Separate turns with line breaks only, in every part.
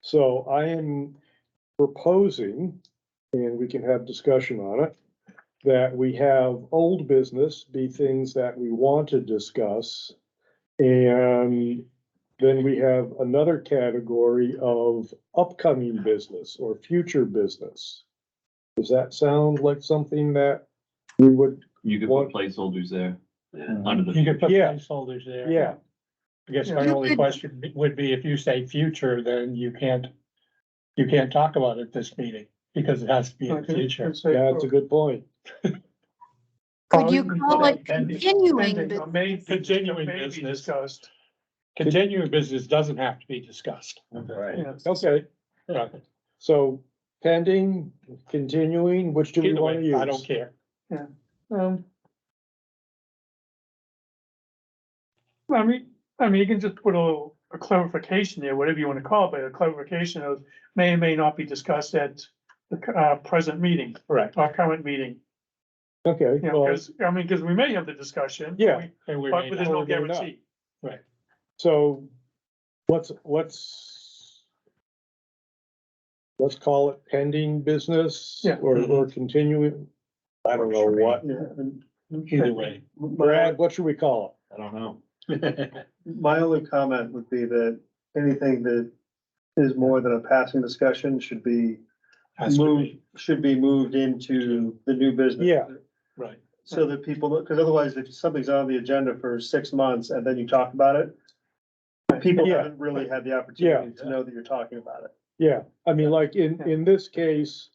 So I am proposing, and we can have discussion on it, that we have old business be things that we want to discuss. And then we have another category of upcoming business or future business. Does that sound like something that we would,
You could
What-
put placeholders there,
Yeah.
under the.
You could put
Yeah.
placeholders there.
yeah,
I guess my
You
only
could-
question would be if you say future, then you can't, you can't talk about it this meeting because it has to be in the future.
that's a good point.
Could you call it
Pending-
continuing?
pending-
bu-
may-
Continuing
may be
business.
discussed.
Continuing business doesn't have to be discussed.
Right.
Yes.
Okay,
Yeah,
so pending, continuing, which do we
Either
want to
way,
use?
I don't care.
Um, Well, I mean, I mean, you can just put a little a clarification there, whatever you want to call it, but a clarification of may or may not be discussed at the cu- uh, present meeting,
Correct.
our current meeting.
Okay,
You know,
well,
'cause- I mean, because we may have the discussion.
Yeah.
we-
And we
But
may
there's
not.
no
or may not.
guarantee.
so let's, let's let's call it pending business
Yeah.
or, or continuing. I don't know Mm-hmm. what.
either way.
Brad, what should we call
I don't know.
My only comment would be that anything that is more than a passing discussion should be
Has to
moved,
be,
should be moved into the new business.
Yeah.
right.
So that people, because otherwise if something's on the agenda for six months and then you talk about it, people
Yeah.
haven't really had the opportunity to know that you're talking about it.
it? Yeah, I mean, like in, in this case,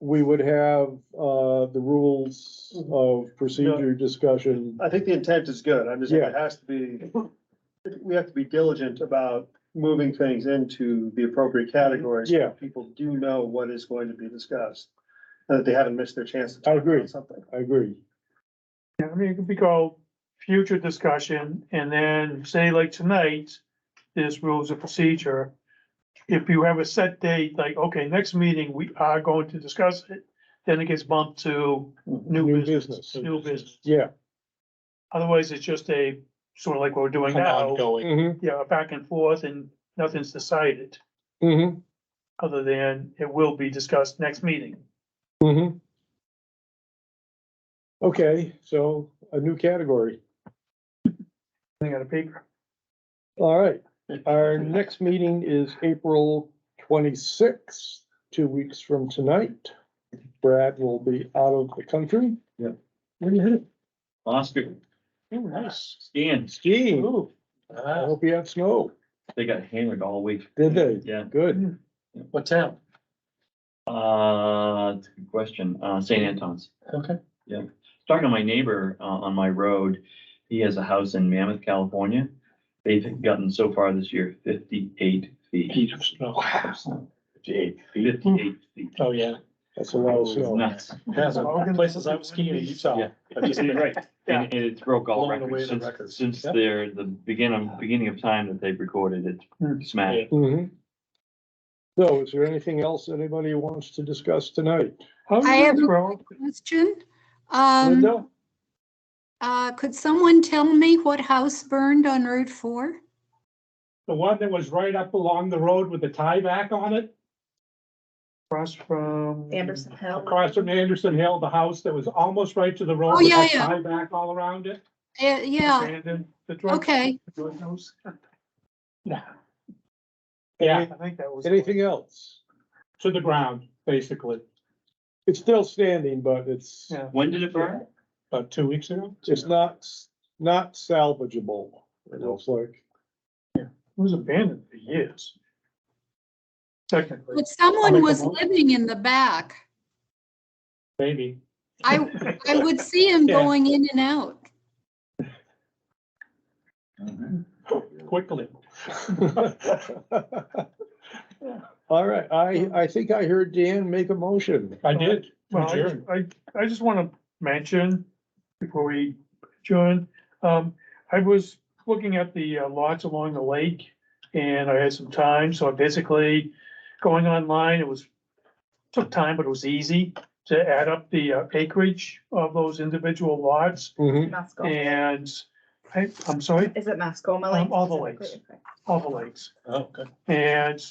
we would have, uh, the rules of procedure discussion.
I think the intent is good. I'm just, saying it has to be, we have to be diligent about moving things into the appropriate categories. so
Yeah.
People do know what is going to be discussed, and that they haven't missed their chance to
I
talk
agree.
about something.
I agree.
Yeah, I mean, it could be called future discussion, and then say like tonight, this rules of procedure. If you have a set date, like, okay, next meeting, we are going to discuss it, then it gets bumped to
New
new business,
business.
new business.
Yeah.
Otherwise, it's just a, sort of like what we're doing
An
now,
Ongoing.
Mm-hmm,
yeah, back and forth, and nothing's decided,
mm-hmm,
other than it will be discussed next meeting.
mm-hmm. Okay, so a new category.
Thing on a paper.
All right, our next meeting is April twenty-sixth, two weeks from tonight. Brad will be out of the country.
Yep.
Where you headed?
Oscar,
Nice.
Stan,
Skiing.
Ooh.
I
Ah,
hope you have snow.
they got hammered all week.
Did they?
Yeah,
Good.
What town?
uh, it's a good question, uh, St. Anton's.
Okay.
Talking to my neighbor, uh, on my road, he has a house in Mammoth, California. They've gotten so far this year fifty-eight feet.
Peter Snow.
Fifty-eight. Fifty-eight feet.
Oh, yeah.
That's a lot of snow.
Nuts.
That's places I was skiing in Utah.
Yeah.
I've just been-
Right,
Yeah.
and and it's broke all
Blowing away
records
the
since,
records.
since
Yep.
they're the beginning, beginning of time that they've recorded
Hmm.
it. Smash.
hmm Mm-hmm. So is there anything else anybody wants to discuss tonight?
How's
I
it
have a
grow?
Question? Um,
Linda?
uh, could someone tell me what house burned on Route Four?
The one that was right up along the road with the tieback on it,
Across from.
Anderson Hill.
across from Anderson Hill, the house that was almost right to the road.
Oh,
with
yeah,
the
yeah.
Tieback all around it.
Uh, yeah,
Brandon, the drug.
okay.
drug house.
Yeah,
I think that was.
Anything else?
to the ground, basically,
It's still standing, but it's,
Yeah.
When did it burn?
about two weeks ago.
it's not, not salvageable, it looks like.
It was abandoned for years. Technically.
But someone
make a
was
mo-
living in the back.
Maybe.
I, I would see him
Yeah.
going in and out.
Quickly.
All right, I, I think I heard Dan make a motion.
I did.
Well,
Adjourn.
I, I- I just want to mention before we adjourn, um, I was looking at the uh, lots along the lake and I had some time, so I basically going online, it was, took time, but it was easy to add up the uh, acreage of those individual lots
Mhm.
Oh.
Mascoma.
and I, I'm sorry,
Is it Mascoma
Um,
Lake?
all the lakes. all the lakes.
Oh, good.
And